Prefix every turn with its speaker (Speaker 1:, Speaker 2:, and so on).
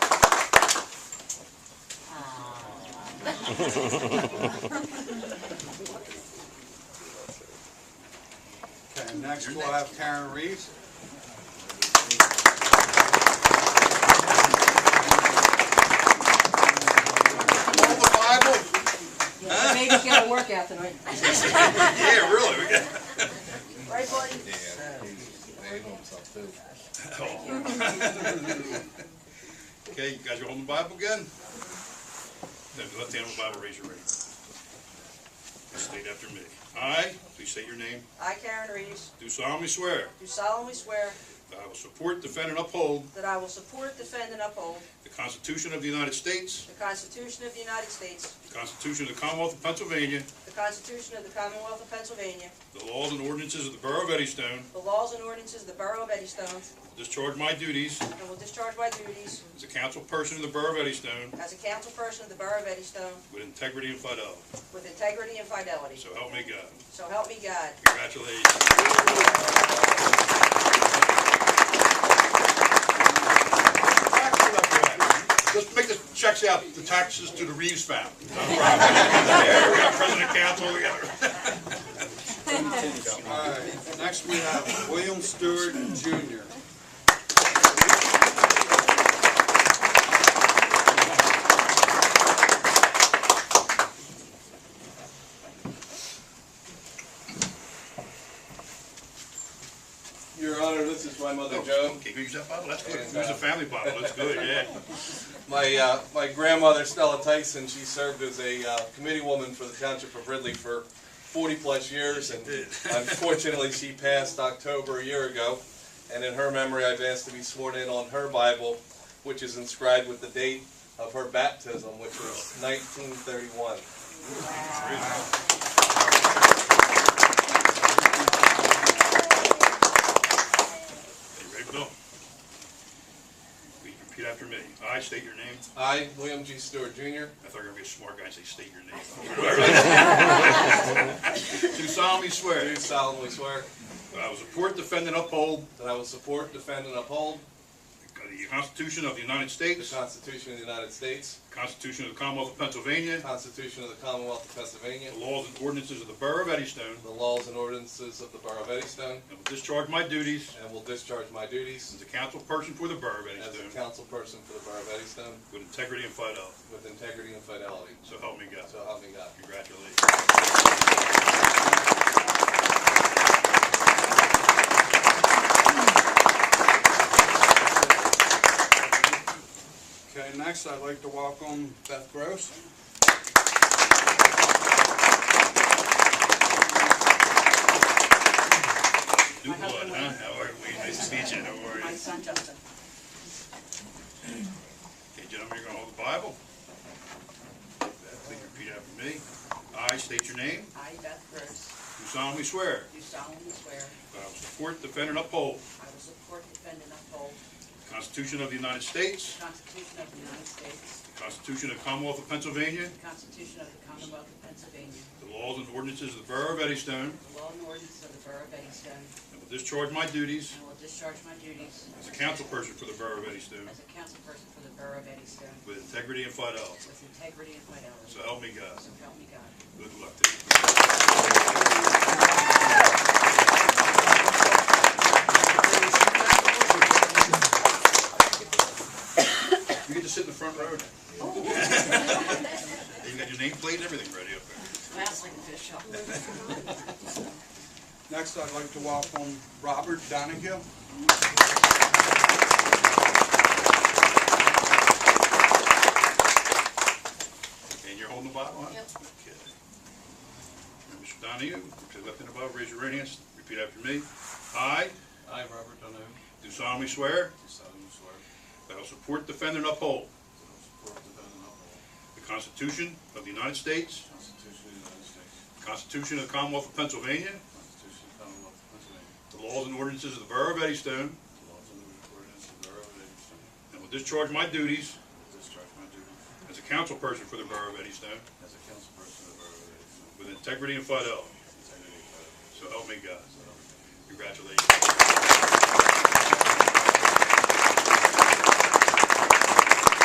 Speaker 1: Okay, next we'll have Karen Reeves. Hold the Bible?
Speaker 2: Yeah, Maybe get a workout tonight.
Speaker 1: Yeah, really, we got.
Speaker 2: Right, buddy?
Speaker 1: Okay, you guys are holding the Bible again? Then left hand on the Bible, raise your right. State after me. I, please state your name,
Speaker 3: I, Karen Reeves,
Speaker 1: do solemnly swear
Speaker 3: do solemnly swear
Speaker 1: that I will support, defend, and uphold
Speaker 3: that I will support, defend, and uphold
Speaker 1: the Constitution of the United States,
Speaker 3: the Constitution of the United States,
Speaker 1: the Constitution of the Commonwealth of Pennsylvania,
Speaker 3: the Constitution of the Commonwealth of Pennsylvania,
Speaker 1: the laws and ordinances of the Borough of Eddystone,
Speaker 3: the laws and ordinances of the Borough of Eddystone,
Speaker 1: discharge my duties
Speaker 3: and will discharge my duties
Speaker 1: as a council person in the Borough of Eddystone
Speaker 3: as a councilperson of the Borough of Eddystone
Speaker 1: with integrity and fidelity.
Speaker 3: with integrity and fidelity.
Speaker 1: So help me God.
Speaker 3: So help me God.
Speaker 1: Congratulations. Let's make the checks out, the taxes to the Reeves family. No problem. Yeah, We got president council, we got.
Speaker 4: All right, next we have William Stewart Jr. Your Honor, this is my mother, Joan.
Speaker 1: Okay, use that bottle, that's good. Use a family bottle, that's good, yeah.
Speaker 4: My, uh, my grandmother Stella Tyson, she served as a uh, committee woman for the Township of Ridley for 40-plus years, and unfortunately, she passed October a year ago. And in her memory, I've asked to be sworn in on her Bible, which is inscribed with the date of her baptism, which was 1931.
Speaker 1: You ready, Bill? Please repeat after me. I state your name.
Speaker 4: I, William G. Stewart Jr.,
Speaker 1: I thought you were gonna be a smart guy and say state your name. Do solemnly swear
Speaker 4: do solemnly swear
Speaker 1: that I will support, defend, and uphold
Speaker 4: that I will support, defend, and uphold
Speaker 1: the Constitution of the United
Speaker 4: the
Speaker 1: States, the
Speaker 4: Constitution of the United States,
Speaker 1: Constitution of the Commonwealth of Pennsylvania,
Speaker 4: the Constitution of the Commonwealth of Pennsylvania,
Speaker 1: the laws and ordinances of the Borough of Eddystone,
Speaker 4: The laws and ordinances of the Borough of Eddystone,
Speaker 1: and will discharge my duties
Speaker 4: and will discharge my duties
Speaker 1: as a council person for the Borough of
Speaker 4: as a
Speaker 1: Eddystone
Speaker 4: councilperson for the Borough of Eddystone
Speaker 1: with integrity and fidelity.
Speaker 4: with integrity and fidelity.
Speaker 1: So help me God.
Speaker 4: So help me God.
Speaker 1: Congratulations. Okay, next I'd like to welcome Beth Gross. New blood, huh? How are we? Nice to meet you, how are you?
Speaker 5: My son Justin.
Speaker 1: Okay, gentlemen, you're gonna hold the Bible. Beth, Please repeat after me. I state your name,
Speaker 5: I, Beth Gross,
Speaker 1: do solemnly swear
Speaker 5: do solemnly swear
Speaker 1: that I will support, defend, and uphold
Speaker 5: I will support, defend, and uphold
Speaker 1: the Constitution of the United States,
Speaker 5: the Constitution of the United States,
Speaker 1: the Constitution of the Commonwealth of Pennsylvania,
Speaker 5: the Constitution of the Commonwealth of Pennsylvania,
Speaker 1: the laws and ordinances of the Borough of Eddystone,
Speaker 5: the law and ordinances of the Borough of Eddystone,
Speaker 1: and will discharge my duties
Speaker 5: and will discharge my duties
Speaker 1: as a councilperson for the Borough of Eddystone
Speaker 5: as a councilperson for the Borough of Eddystone
Speaker 1: with integrity and fidelity.
Speaker 5: with integrity and fidelity.
Speaker 1: So help me God.
Speaker 5: So help me God.
Speaker 1: Good luck to you. You get to sit in the front row now. You got your nameplate and everything ready up there.
Speaker 5: Maslin Bishop.
Speaker 1: Next, I'd like to welcome Robert Donahue. And you're holding the Bible, huh?
Speaker 5: Yep.
Speaker 1: Okay. Mr. Donahue, put your left hand above, raise your right hand, repeat after me. I
Speaker 4: I, Robert Donohue, do
Speaker 1: do solemnly swear
Speaker 4: solemnly swear that
Speaker 1: that I will support, defend, and uphold
Speaker 4: I will support, defend, and uphold
Speaker 1: the Constitution of the United States,
Speaker 4: the Constitution of the United States,
Speaker 1: the Constitution of the Commonwealth of Pennsylvania,
Speaker 4: the Constitution of the Commonwealth of Pennsylvania,
Speaker 1: the laws and ordinances of the Borough of Eddystone,
Speaker 4: the laws and ordinances of the Borough of Eddystone,
Speaker 1: and will discharge my duties
Speaker 4: and discharge my duties
Speaker 1: As a council person for the Borough of Eddystone,
Speaker 4: as a councilperson of the Borough of Eddystone
Speaker 1: with integrity and fidelity,
Speaker 4: with integrity and fidelity.
Speaker 1: so help me God.
Speaker 4: So help me God.
Speaker 1: Congratulations.